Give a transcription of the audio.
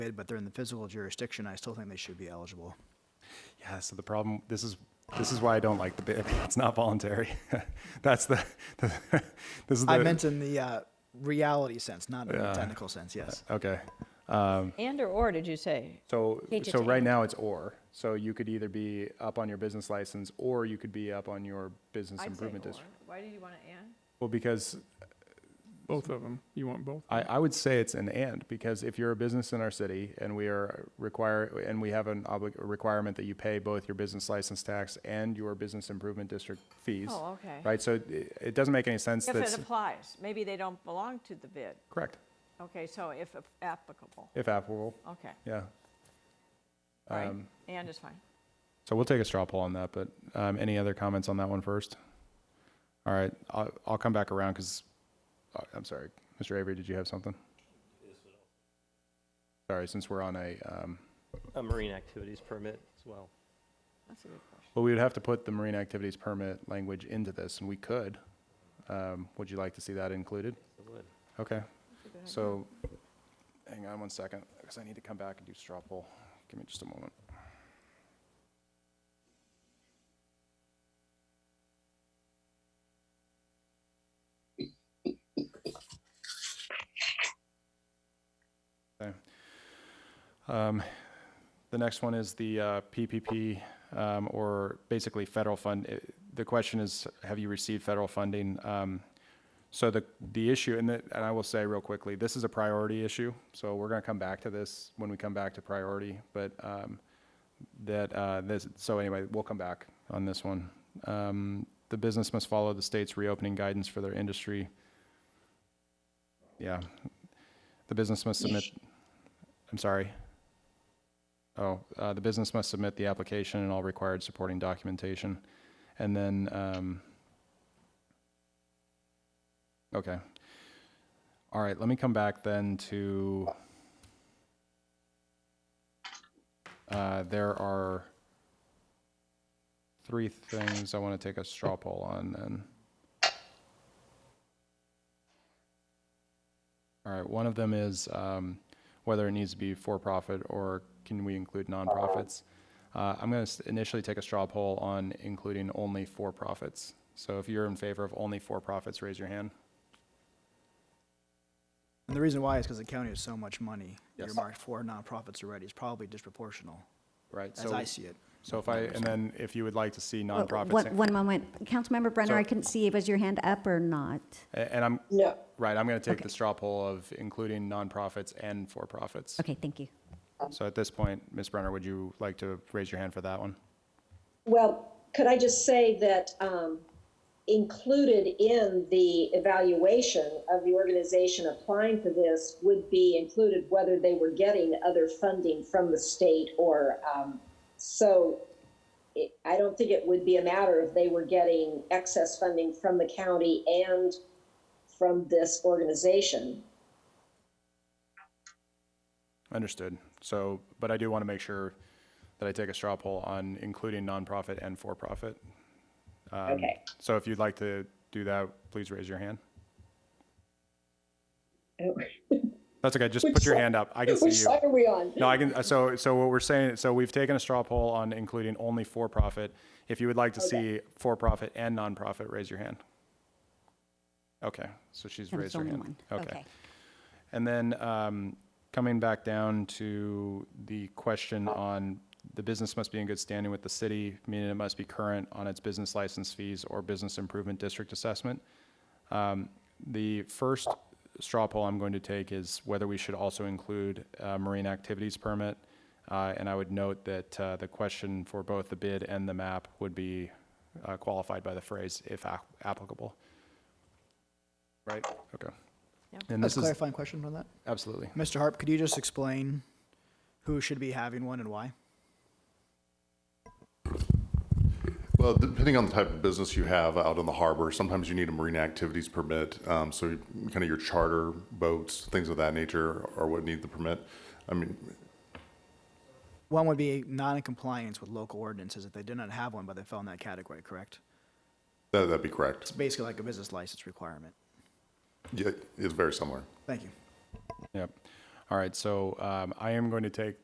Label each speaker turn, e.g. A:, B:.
A: bid, but they're in the physical jurisdiction, I still think they should be eligible.
B: Yeah, so the problem, this is, this is why I don't like the bid. It's not voluntary. That's the, this is the.
A: I meant in the uh, reality sense, not in the
B: Yeah.
A: technical sense, yes.
B: Okay.
C: And or or, did you say?
B: So,
C: Change it
B: so
C: to
B: right now it's or. So you could either be up on your business license or you could be up on your business improvement district.
C: Why do you want to and?
B: Well, because
D: Both of them. You want both?
B: I, I would say it's an and because if you're a business in our city and we are require and we have an obli- a requirement that you pay both your business license tax and your business improvement district fees.
C: Oh, okay.
B: Right, so it, it doesn't make any sense
C: If it
B: that's
C: applies, maybe they don't belong to the bid.
B: correct,
C: Okay, so if applicable,
B: if applicable.
C: okay,
B: Yeah.
C: right,
B: Um,
C: and is fine.
B: So we'll take a straw poll on that, but um, any other comments on that one first? All right, I'll, I'll come back around because, I'm sorry, Mr. Avery, did you have something? Sorry, since we're on a, um,
E: a marine activities permit as well.
C: That's a good question.
B: well, we would have to put the marine activities permit language into this, and we could. Um, Would you like to see that included?
E: It would.
B: Okay,
C: That's a good idea.
B: so, hang on one second, because I need to come back and do straw poll. Give me just a moment. Okay. Um, The next one is the uh, PPP, um, or basically federal fund. eh, The question is, have you received federal funding? Um, so the, the issue, and, the- and I will say real quickly, this is a priority issue, so we're gonna come back to this when we come back to priority, but, um, that, uh, this, so anyway, we'll come back on this one. Um, the business must follow the state's reopening guidance for their industry. Yeah. The business must submit, I'm sorry. Oh, uh, the business must submit the application and all required supporting documentation. And then, um, Okay. All right, let me come back then to, uh, there are three things I want to take a straw poll on then. All right, one of them is, um, whether it needs to be for-profit or can we include nonprofits? Uh, I'm going to initially take a straw poll on including only for-profits. So if you're in favor of only for-profits, raise your hand.
A: And the reason why is because the county has so much money
B: Yes.
A: earmarked for nonprofits already, it's probably disproportional,
B: Right,
A: as I
B: so,
A: see it.
B: so if I, and then if you would like to see
F: Well,
B: nonprofits,
F: Uh, One,
B: in-
F: one moment. Councilmember Brenner,
B: So-
F: I couldn't see, was your hand up or not?
B: a- and I'm,
G: No,
B: right, I'm gonna take
F: Okay.
B: the straw poll of including nonprofits and for-profits.
F: Okay, thank you.
B: So at this point, Ms. Brenner, would you like to raise your hand for that one?
G: well, could I just say that um, included in the evaluation of the organization applying for this would be included whether they were getting other funding from the state or, um, so it- I don't think it would be a matter if they were getting excess funding from the county and from this organization.
B: Understood. So, but I do wanna make sure that I take a straw poll on including nonprofit and for-profit. Um,
G: Okay.
B: So if you'd like to do that, please raise your hand. That's okay, just
G: Which
B: put your
G: side-
B: hand up. I can see you.
G: Which side are we on?
B: No, I can, so, so what we're saying, so we've taken a straw poll on including only for-profit. If you would like to see for-profit and nonprofit, raise your hand. Okay, so she's
F: That was
B: raised her
F: only
B: hand.
F: one.
B: Okay. And then, um, coming back down to the question on the business must be in good standing with the city, meaning it must be current on its business license fees or business improvement district assessment. Um, The first straw poll I'm going to take is whether we should also include a marine activities permit. Uh, And I would note that uh, the question for both the bid and the map would be uh, qualified by the phrase "if ap- applicable." Right? Okay.
C: Yeah.
B: And
A: That's
B: this
A: a
B: is,
A: clarifying question on that.
B: absolutely.
A: Mr. Harp, could you just explain who should be having one and why?
H: Well, depending on the type of business you have out on the harbor, sometimes you need a marine activities permit. Um, so kind of your charter boats, things of that nature are what need the permit. I mean,
A: One would be not in compliance with local ordinances if they did not have one, but they fell in that category, correct?
H: that, that'd be correct.
A: It's basically like a business license requirement.
H: Yeah, it's very similar.
A: Thank you.
B: Yep. All right, so um, I am going to take